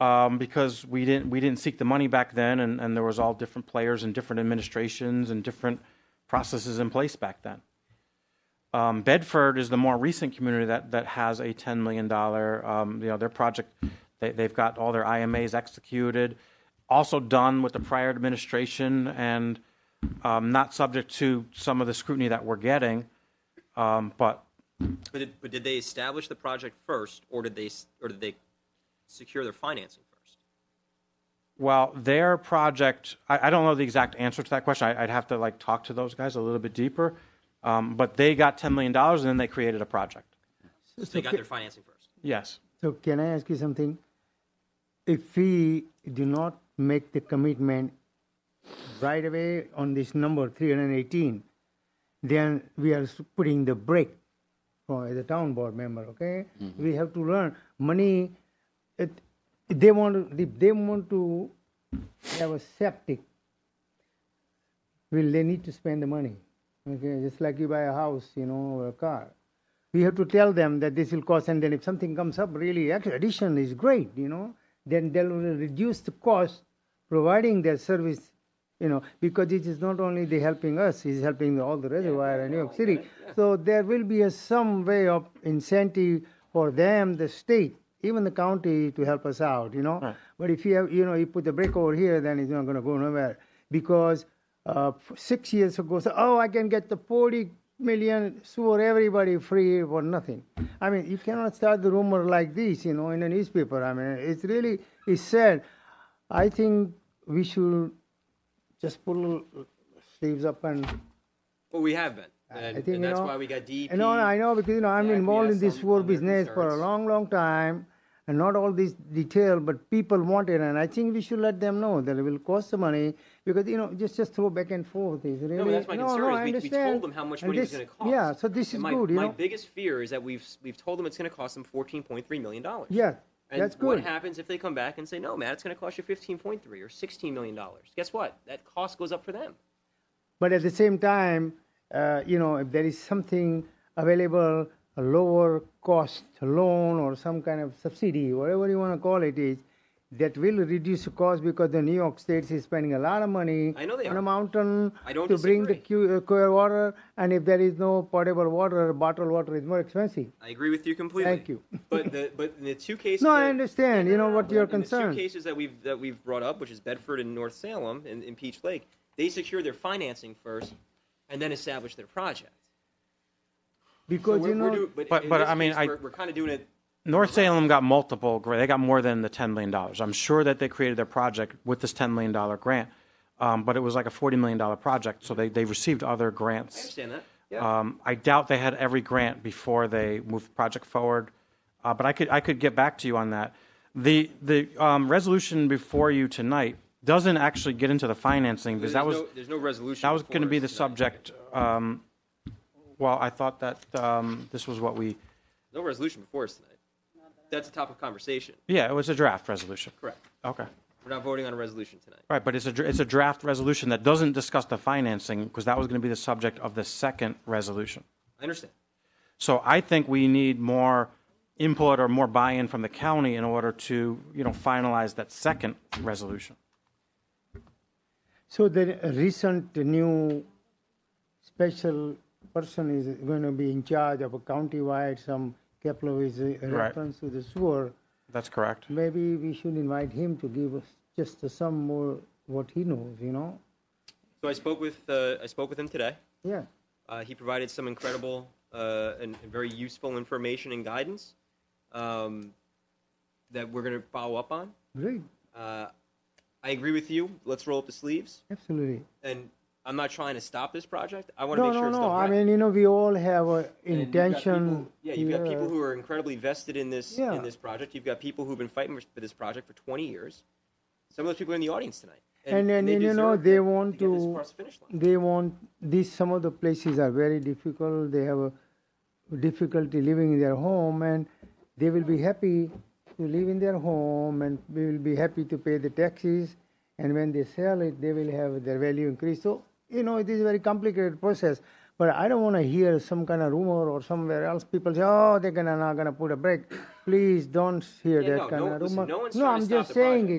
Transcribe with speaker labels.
Speaker 1: um, because we didn't we didn't seek the money back then, and, and there was all different players and different administrations and different processes in place back then. Um, Bedford is the more recent community that that has a ten million dollar um, you know their project. They, they've got all their IMAs executed, also done with the prior administration, and um, not subject to some of the scrutiny that we're getting. Um, but
Speaker 2: But did, but did they establish the project first, or did they s- or did they secure their financing first?
Speaker 1: Well, their project, I, I don't know the exact answer to that question. I, I'd have to like talk to those guys a little bit deeper. Um, but they got $10 million and then they created a project.
Speaker 2: So they got their financing first.
Speaker 1: Yes.
Speaker 3: So can I ask you something? If we do not make the commitment right away on this number 318, then we are s- putting the brake for the town board member, okay? We have to learn money, it, they want, to- if they want to have a septic, will they need to spend the money? Okay, just like you buy a house, you know, or a car. We have to tell them that this will cost, and then if something comes up, really, actually, addition is great, you know, then they'll reduce the cost providing their service, you know, because it is not only they helping us, it's helping all the reservoir and New York City. So there will be a, some way of incentive for them, the state, even the county, to help us out, you know. But if you have, you know, you put the brake over here, then it's not going to go nowhere because uh, f- six years ago, so, oh, I can get the 40 million for everybody free for nothing. I mean, you cannot start the rumor like this, you know, in a newspaper. I mean, it's really, it's sad. I think we should just pull sleeves up and.
Speaker 2: Well, we have been,
Speaker 3: I
Speaker 2: and,
Speaker 3: think
Speaker 2: and
Speaker 3: you
Speaker 2: that's
Speaker 3: know,
Speaker 2: why we got E DEP.
Speaker 3: No, no, I know because you know I'm
Speaker 2: Yeah, I
Speaker 3: involved in
Speaker 2: acquiesce
Speaker 3: this
Speaker 2: on-
Speaker 3: war
Speaker 2: on their
Speaker 3: business for a
Speaker 2: concerns.
Speaker 3: long, long time, and not all this detail, but people want it, and I think we should let them know that it will cost the money because you know just just throw back and forth is really
Speaker 2: No, but that's my concern.
Speaker 3: no,
Speaker 2: is
Speaker 3: I
Speaker 2: we, we
Speaker 3: understand.
Speaker 2: told them how much
Speaker 3: And
Speaker 2: money
Speaker 3: this,
Speaker 2: it was going to cost.
Speaker 3: Yeah, so this is
Speaker 2: and my,
Speaker 3: good, you
Speaker 2: my
Speaker 3: know.
Speaker 2: biggest fear is that we've we've told them it's going to cost them fourteen point three million dollars.
Speaker 3: yeah,
Speaker 2: And
Speaker 3: that's
Speaker 2: What
Speaker 3: good.
Speaker 2: happens if they come back and say, "No, Matt, it's going to cost you fifteen point three or sixteen million dollars"? Guess what? That cost goes up for them.
Speaker 3: But at the same time, uh, you know, if there is something available, a lower cost loan or some kind of subsidy, whatever you want to call it is, that will reduce the cost because the New York State is spending a lot of money
Speaker 2: I know they
Speaker 3: on
Speaker 2: are.
Speaker 3: a mountain
Speaker 2: I don't
Speaker 3: to bring the
Speaker 2: disagree.
Speaker 3: cu- uh, cure water. And if there is no potable water, bottled water is more expensive.
Speaker 2: I agree with you completely.
Speaker 3: Thank you.
Speaker 2: But the but in the two cases.
Speaker 3: No,
Speaker 2: that,
Speaker 3: I understand, you know, what your
Speaker 2: in The
Speaker 3: concern.
Speaker 2: two cases that we've that we've brought up, which is Bedford and North Salem and in Peach Lake, they secure their financing first, and then establish their project.
Speaker 3: Because,
Speaker 2: we're,
Speaker 3: you know,
Speaker 2: we're doing, but
Speaker 1: But-
Speaker 2: in
Speaker 1: but,
Speaker 2: this
Speaker 1: I mean,
Speaker 2: case,
Speaker 1: I-
Speaker 2: we're, we're kind of doing it.
Speaker 1: North Salem got multiple, gra- they got more than the $10 million. I'm sure that they created their project with this $10 million grant, um, but it was like a $40 million project, so they, they received other
Speaker 2: I
Speaker 1: grants.
Speaker 2: understand that. Yeah.
Speaker 1: Um, I doubt they had every grant before they moved the project forward, uh, but I could I could get back to you on that. The the um, resolution before you tonight doesn't actually get into the financing because
Speaker 2: there's
Speaker 1: that was
Speaker 2: no, there's no resolution.
Speaker 1: that was
Speaker 2: before
Speaker 1: going to be
Speaker 2: us
Speaker 1: the
Speaker 2: tonight.
Speaker 1: subject. Um, well, I thought that um, this was what we
Speaker 2: No resolution before us tonight. That's a topic of conversation.
Speaker 1: yeah it was a draft resolution.
Speaker 2: Correct.
Speaker 1: Okay.
Speaker 2: We're not voting on a resolution tonight.
Speaker 1: Right, but it's a dr- it's a draft resolution that doesn't discuss the financing because that was going to be the subject of the second resolution.
Speaker 2: I understand.
Speaker 1: So I think we need more input or more buy-in from the county in order to, you know, finalize that second resolution.
Speaker 3: So the recent new special person is going to be in charge of a county-wide, some Kepler is a reference to the sewer.
Speaker 1: That's correct.
Speaker 3: Maybe we should invite him to give us just some more what he knows, you know?
Speaker 2: So I spoke with uh, I spoke with him today.
Speaker 3: Yeah.
Speaker 2: Uh, he provided some incredible uh, and, and very useful information and guidance um, that we're going to follow up on.
Speaker 3: Great.
Speaker 2: Uh, I agree with you. Let's roll up the sleeves.
Speaker 3: Absolutely.
Speaker 2: And I'm not trying to stop this project. I want to
Speaker 3: No,
Speaker 2: make sure
Speaker 3: no,
Speaker 2: it's
Speaker 3: no.
Speaker 2: done
Speaker 3: I
Speaker 2: right.
Speaker 3: mean, you know, we all have a
Speaker 2: And you've got people-
Speaker 3: intention.
Speaker 2: yeah, you've got people
Speaker 3: yeah.
Speaker 2: who are incredibly vested in this
Speaker 3: Yeah.
Speaker 2: in this project. You've got people who've been fighting for this project for 20 years. Some of those people are in the audience tonight.
Speaker 3: And then,
Speaker 2: they
Speaker 3: you know,
Speaker 2: deserve
Speaker 3: they
Speaker 2: to-
Speaker 3: want
Speaker 2: to get this
Speaker 3: to-
Speaker 2: across the finish line.
Speaker 3: they want these some of the places are very difficult they have a difficulty living in their home and they will be happy to live in their home and we will be happy to pay the taxes and when they sell it they will have their value increase so you know it is a very complicated process But I don't want to hear some kind of rumor or somewhere else people say, oh, they're gonna, not going to put a break. Please don't hear
Speaker 2: Yeah,
Speaker 3: that
Speaker 2: no,
Speaker 3: kind
Speaker 2: no-
Speaker 3: of
Speaker 2: listen,
Speaker 3: rumor.
Speaker 2: no one's
Speaker 3: no
Speaker 2: trying to
Speaker 3: I'm
Speaker 2: stop
Speaker 3: just
Speaker 2: the
Speaker 3: saying
Speaker 2: project.